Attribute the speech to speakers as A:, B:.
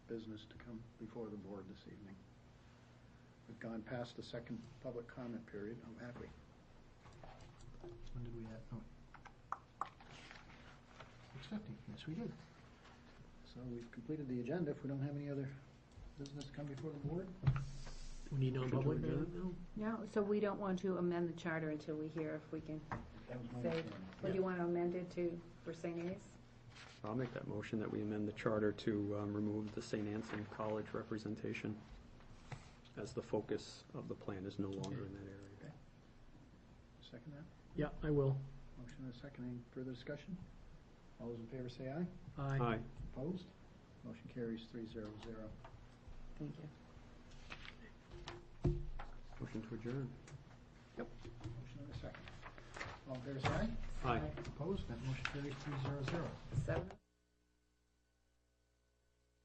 A: business to come before the board this evening. We've gone past the second public comment period, oh, have we? When did we have, no. Six fifty, yes, we did. So we've completed the agenda, if we don't have any other business to come before the board?
B: We need non-public
A: Should we
B: now?
A: do
C: No, so we don't want to amend the charter until we hear if we can,
A: That was my
C: Say-
A: understanding.
C: what do you want to amend it to for St. A's?
D: I'll make that motion that we amend the charter to um, remove the St. Anselm College representation as the focus of the plan is no longer in that area.
A: Second that?
B: Yeah, I will.
A: Motion and a second, any further discussion? All those in favor say aye.
B: Aye.
A: Opposed? Motion carries three zero zero.
C: Thank you.
D: Motion to adjourn.
A: Motion and a second. All in favor say aye.
D: Aye.
A: Opposed? That motion carries three zero zero.
C: Seven.